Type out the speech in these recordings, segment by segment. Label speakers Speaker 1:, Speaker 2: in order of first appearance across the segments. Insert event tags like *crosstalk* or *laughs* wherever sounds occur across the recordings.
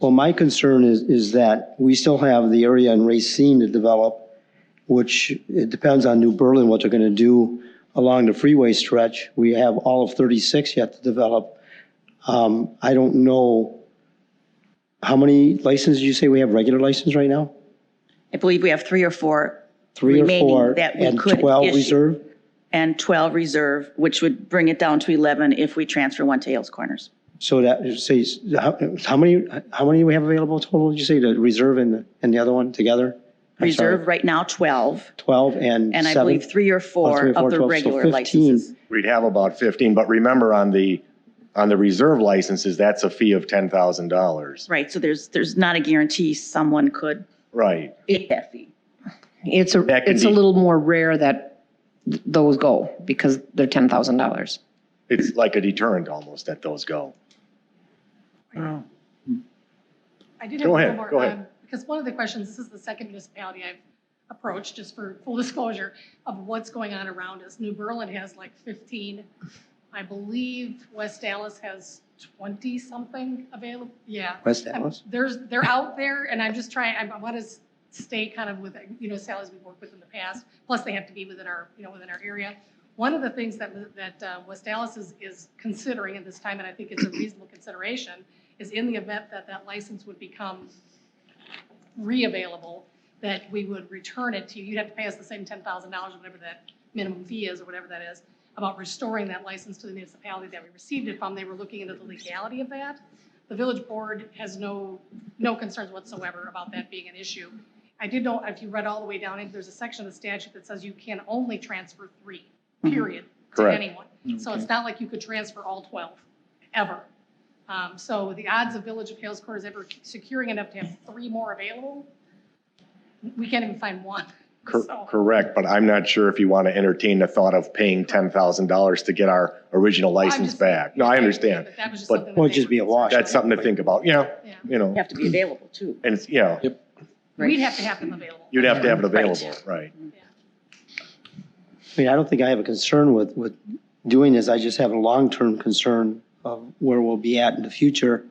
Speaker 1: Well, my concern is, is that we still have the area in Racine to develop, which it depends on New Berlin, what they're going to do along the freeway stretch. We have all of 36 yet to develop. Um, I don't know, how many licenses you say we have, regular license right now?
Speaker 2: I believe we have three or four
Speaker 1: Three or
Speaker 2: Remaining
Speaker 1: four?
Speaker 2: that we could
Speaker 1: And 12
Speaker 2: issue.
Speaker 1: reserve?
Speaker 2: and 12 reserve, which would bring it down to 11 if we transfer one to Hales Corners.
Speaker 1: So that, say, how, how many, how many we have available total, did you say, the reserve and, the- and the other one together? I'm sorry,
Speaker 2: Reserve right now, 12,
Speaker 1: 12 and
Speaker 2: and I
Speaker 1: seven?
Speaker 2: believe three or
Speaker 1: Oh,
Speaker 2: four
Speaker 1: three or four,
Speaker 2: of the
Speaker 1: 12, so
Speaker 2: regular
Speaker 1: 15.
Speaker 2: licenses.
Speaker 3: We'd have about 15, but remember on the, on the reserve licenses, that's a fee of $10,000.
Speaker 2: Right, so there's, there's not a guarantee someone could
Speaker 3: Right.
Speaker 2: hit that fee.
Speaker 4: It's a,
Speaker 3: That can
Speaker 4: it's a
Speaker 3: be-
Speaker 4: little more rare that th- those go because they're ten thousand dollars.
Speaker 3: It's like a deterrent almost that those go.
Speaker 5: I did
Speaker 3: Go
Speaker 5: have one
Speaker 3: ahead,
Speaker 5: more.
Speaker 3: go ahead.
Speaker 5: um, Because one of the questions, this is the second municipality I've approached, just for full disclosure, of what's going on around us. New Berlin has like 15. I believe West Dallas has 20-something available. Yeah.
Speaker 1: West
Speaker 5: I'm-
Speaker 1: Dallas?
Speaker 5: There's, they're out there, and I'm just trying, I want to stay kind of with, you know, salaries we've worked with in the past, plus they have to be within our, you know, within our area. One of the things that, that uh, West Dallas is, is considering at this time, and I think it's a reasonable consideration, is in the event that that license would become reavailable, that we would return it to you. You'd have to pay us the same $10,000, or whatever that minimum fee is, or whatever that is, about restoring that license to the municipality that we received it from. They were looking into the legality of that. The village board has no, no concerns whatsoever about that being an issue. I did know, if you read all the way down, there's a section of the statute that says you can only transfer three, period, to
Speaker 3: Correct.
Speaker 5: anyone. So it's not like you could transfer all 12, ever. Um, So the odds of Village of Hales Corners ever securing enough to have three more available, we can't even find one.
Speaker 3: *laughs* Cor-
Speaker 5: So-
Speaker 3: Correct, but I'm not sure if you want to entertain the thought of paying $10,000 to get our original
Speaker 5: I'm
Speaker 3: license
Speaker 5: just-
Speaker 3: back. No, I understand.
Speaker 5: But that was just
Speaker 3: But-
Speaker 5: something that
Speaker 1: Well, it'd
Speaker 5: they
Speaker 1: just
Speaker 5: were
Speaker 1: be a wash.
Speaker 5: concerned
Speaker 3: That's something to think about, yeah,
Speaker 5: about. Yeah.
Speaker 3: you know,
Speaker 2: Have to be available too.
Speaker 3: and it's, yeah,
Speaker 2: Right.
Speaker 5: We'd have to have them available.
Speaker 3: you'd have to have it
Speaker 2: Right.
Speaker 3: available, right.
Speaker 1: I mean, I don't think I have a concern with, with doing this, I just have a long-term concern of where we'll be at in the future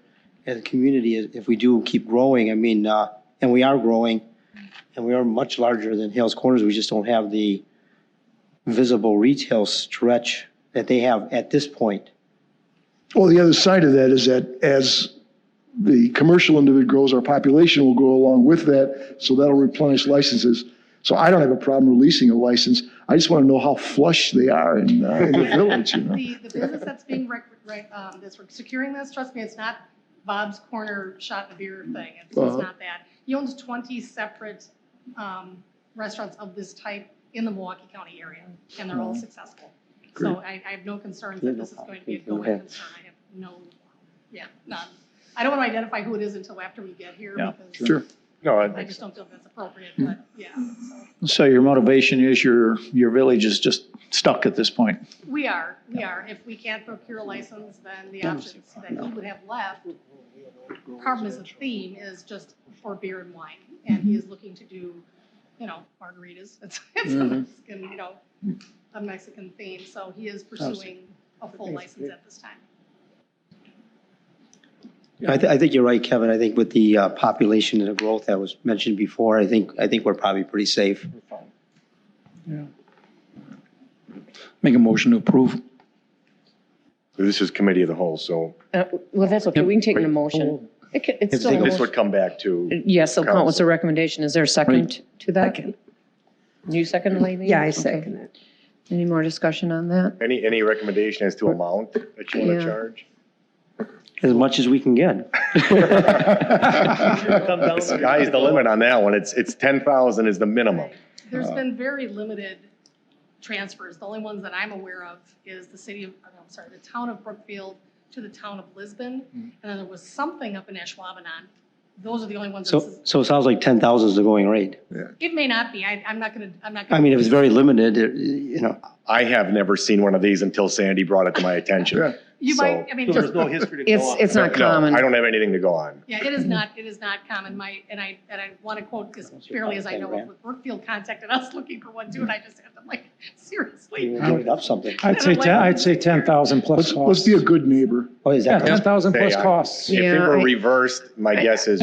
Speaker 1: as a community if if we do keep growing, I mean, uh, and we are growing, and we are much larger than Hales Corners, we just don't have the visible retail stretch that they have at this point.
Speaker 6: Well, the other side of that is that as the commercial end of it grows, our population will grow along with that, so that'll replenish licenses. So I don't have a problem releasing a license. I just want to know how flush they are in, uh, in the village, you
Speaker 7: *laughs*
Speaker 6: know?
Speaker 5: The, the business that's being rec, rec, um, that's securing this, trust me, it's not Bob's Corner Shot and Beer thing. It's, it's
Speaker 6: Uh-huh.
Speaker 5: not that. He owns twenty separate, um, restaurants of this type in the Milwaukee County area, and they're all successful. So I, I have no concerns
Speaker 1: Uh-huh. Yeah,
Speaker 5: that
Speaker 1: no
Speaker 5: this is
Speaker 1: problem.
Speaker 5: going to be a
Speaker 1: Go
Speaker 5: going
Speaker 1: ahead.
Speaker 5: concern. I have no, yeah, none. I don't want to identify who it is until after we get here
Speaker 7: Yeah,
Speaker 5: because
Speaker 6: Sure.
Speaker 3: No,
Speaker 5: I
Speaker 3: I-
Speaker 5: just don't feel that's appropriate,
Speaker 1: Hmm.
Speaker 5: but yeah, so.
Speaker 7: So your motivation is your, your village is just stuck at this point.
Speaker 5: We are, we are. If we can't procure a license, then the options that he would have left, problem is the theme is just for beer and wine. And he is looking to do, you know, margaritas. *laughs* It's, it's a
Speaker 7: Mhm.
Speaker 5: Mexican, you know, a Mexican theme. So he is pursuing a full license at this time.
Speaker 1: I, th- I think you're right, Kevin. I think with the uh, population and the growth that was mentioned before, I think, I think we're probably pretty safe.
Speaker 7: Make a motion to approve.
Speaker 3: this is committee of the whole, so
Speaker 4: Uh, Well, that's okay. We can take an emotion. It ca- It's
Speaker 1: If
Speaker 4: still
Speaker 1: they
Speaker 4: an
Speaker 1: go-
Speaker 3: this
Speaker 4: emotion.
Speaker 3: would come back to,
Speaker 4: Yes, so count what's the
Speaker 3: Council.
Speaker 4: recommendation. Is there a second to that?
Speaker 8: Second.
Speaker 4: You second, Lavey?
Speaker 8: Yeah, I
Speaker 4: Okay.
Speaker 8: second it.
Speaker 4: Any more discussion on that?
Speaker 3: any, any recommendation as to amount that you want
Speaker 4: Yeah.
Speaker 3: to charge?
Speaker 1: As much as we can get.
Speaker 3: The sky's the limit on that one. It's, it's 10,000 is the minimum.
Speaker 5: There's been very limited transfers. The only ones that I'm aware of is the city of, oh, no, I'm sorry, the town of Brookfield to the town of Lisbon. And then there was something up in Ashwaubenon. Those are the only ones.
Speaker 1: So,
Speaker 5: that's-
Speaker 1: so it sounds like 10,000 is the going rate.
Speaker 5: It may not be. I, I'm not gonna, I'm not
Speaker 1: I
Speaker 5: gonna.
Speaker 1: mean, if it's very limited, it- you know,
Speaker 3: I have never seen one of these until Sandy brought it to my attention.
Speaker 6: Yeah.
Speaker 5: You might,
Speaker 3: So-
Speaker 5: I mean,
Speaker 8: There's
Speaker 5: just,
Speaker 8: no history to go
Speaker 4: It's,
Speaker 8: on.
Speaker 4: it's not
Speaker 3: No,
Speaker 4: common.
Speaker 3: I don't have anything to go on.
Speaker 5: yeah, it is not, it is not common, my, and I, and I want to quote as fairly as I know, it, but Brookfield contacted us *laughs* looking for one too, and I just had them like, seriously?
Speaker 1: You're giving up something.
Speaker 8: I'd say, ten- I'd say 10,000 plus
Speaker 6: Let's, let's
Speaker 8: costs.
Speaker 6: be a good neighbor.
Speaker 1: Oh, is
Speaker 8: Yeah,
Speaker 1: that?
Speaker 8: 10,000 plus
Speaker 3: Say, I-
Speaker 8: costs.
Speaker 3: If they
Speaker 4: Yeah,
Speaker 3: were
Speaker 4: I-
Speaker 3: reversed, my guess is